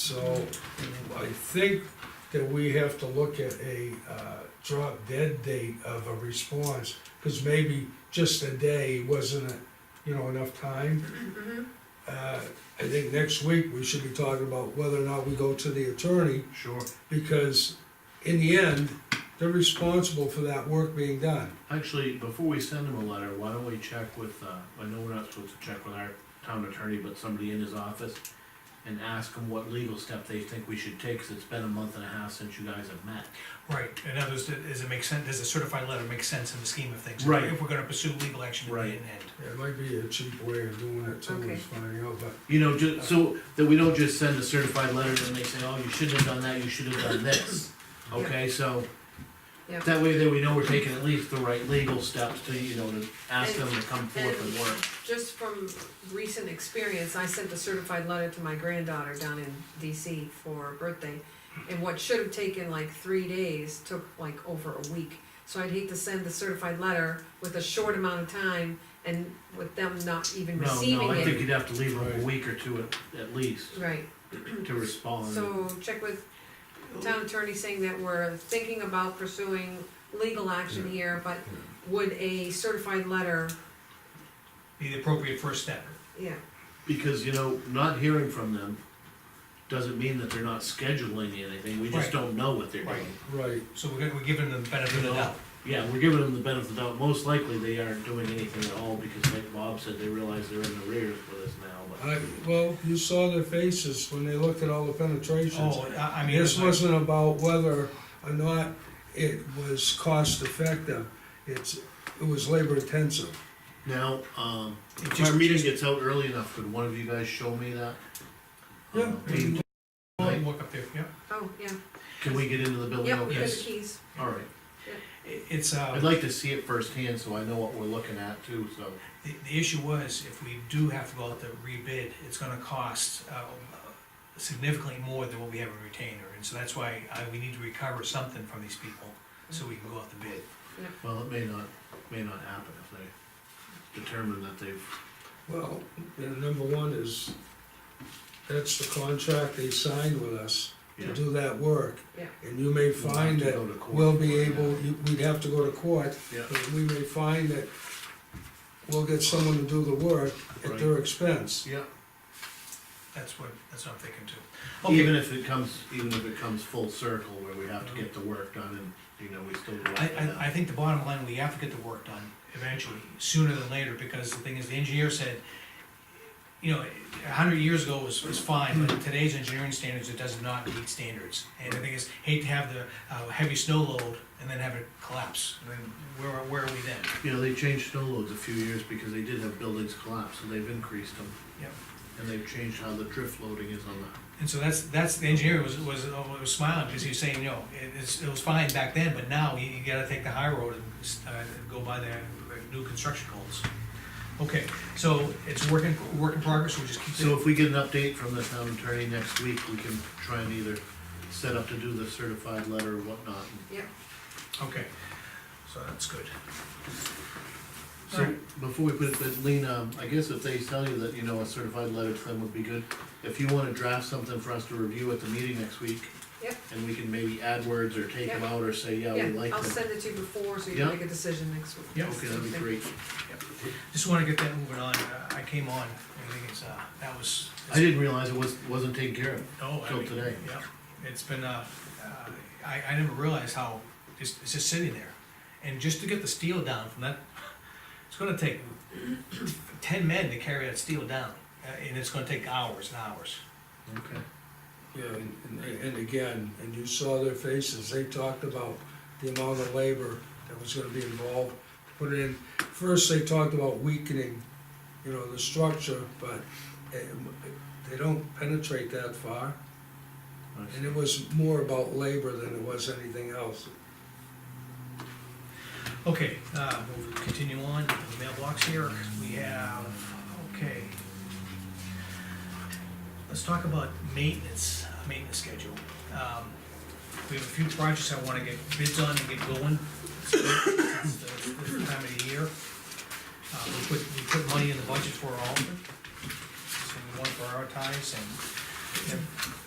So I think that we have to look at a uh, drop dead date of a response, because maybe just a day wasn't, you know, enough time. Mhm. Uh, I think next week we should be talking about whether or not we go to the attorney, Sure, because in the end, they're responsible for that work being done. actually, before we send him a letter, why don't we check with, uh, I know we're not supposed to check with our town attorney, but somebody in his office. And ask him what legal step they think we should take, cause it's been a month and a half since you guys have met. Right, in others, does it make sense, does a certified letter make sense in the scheme of things? Right. If we're gonna pursue legal action in the Right. end. It might be a cheap way of doing it too, Okay. is finding out, but You know, ju- so that we don't just send a certified letter and they say, oh, you shouldn't have done that, you should have done this. Okay, so Yep. that way, then we know we're taking at least the right legal steps to, you know, to ask them to come forth and work. Just from recent experience, I sent a certified letter to my granddaughter down in DC for her birthday. And what should have taken like three days took like over a week. So I'd hate to send the certified letter with a short amount of time and with them not even No, receiving no, I think it. you'd have to leave them a week or two at, at least Right, to respond. so check with town attorney saying that we're thinking about pursuing legal action here, but would a certified letter, Be the appropriate first step. yeah, Because, you know, not hearing from them doesn't mean that they're not scheduling anything, we just Right. don't know what they're Right. doing. right, So we're gonna, we're giving them the benefit of the doubt. Yeah, we're giving them the benefit of the doubt, most likely they aren't doing anything at all, because like Bob said, they realize they're in the rears with us now, I, well, you saw their faces when they looked at all the penetrations. Oh, I, I mean. This it's like- wasn't about whether or not it was cost effective, it's, it was labor intensive. but. Now, um, It if just- our meeting gets out early enough, could one of you guys show me that? Yeah. Um, Can Oh, you Walk up there, yeah. oh, yeah, can we get into the building? yep, Okay. here's Yes. the keys. Alright, It- It's, I'd uh, like to see it firsthand, so I know what we're looking at too, so. the, the issue was, if we do have to go out to rebid, it's gonna cost, uh, significantly more than what we have in retainer, and so that's why, uh, we need to recover something from these people, so we can go out to bid. Well, it may not, may not happen if they determine that they've, Well, and number one is, that's the contract they signed with us to yeah. do that work. Yeah. And you may find We'll have to that go to court we'll for be it. able, you- we'd have to go to court, Yeah, but we may find that we'll get someone to do the work at their expense. yeah, That's what, that's what I'm thinking too. even if it comes, even if it comes full circle where we have to get the work done and, you know, we still. go I, after that. I, I think the bottom line, we have to get the work done eventually, sooner than later, because the thing is, the engineer said, you know, a hundred years ago was, was fine, but today's engineering standards, it does not meet standards. And the thing is, hate to have the, uh, heavy snow load and then have it collapse, and then where, are- where are we then? You know, they changed snow loads a few years because they did have buildings collapse, so they've increased them. Yep. And they've changed how the drift loading is on the, And so that's, that's, the engineer was, was, was smiling, because he was saying, you know, it, it's, it was fine back then, but now you, you gotta take the high road and, uh, go by the the new construction goals. Okay, so it's work in, work in progress, we'll just keep. so if we get an update from the town attorney next week, we can try and either set up to do the certified letter or whatnot. Yep, Okay, so that's good. So, before we put it, but Lean, um, I guess if they tell you that, you know, a certified letter to them would be good, if you wanna draft something for us to review at the meeting next week, yep, and we can maybe add words or take them Yeah. out or say, yeah, we yeah, like I'll them. send it to you before, so you can Yeah. make a decision next week. Yeah. Okay, that'd be great. Just wanna get that moving on, Uh, I came on, I think it's, uh, that was. I didn't realize it was, wasn't taken care of. No, I till mean, today. Yeah, it's been, uh, uh, I, I never realized how, it's, it's just sitting there. And just to get the steel down from that, it's gonna take ten men to carry that steel down, uh, and it's gonna take hours and hours. Okay. Yeah, and, and- and again, and you saw their faces, they talked about the amount of labor that was gonna be involved, put in. First, they talked about weakening, you know, the structure, but eh, they don't penetrate that far. Nice. And it was more about labor than it was anything else. Okay, uh, we'll continue on, the mailbox here, we have, okay. Let's talk about maintenance, uh, maintenance schedule. Um, We have a few projects I wanna get bids on and get going. It's the- the Time of the year. Uh, we put, we put money in the budget for all of them. So we wanna prioritize and, and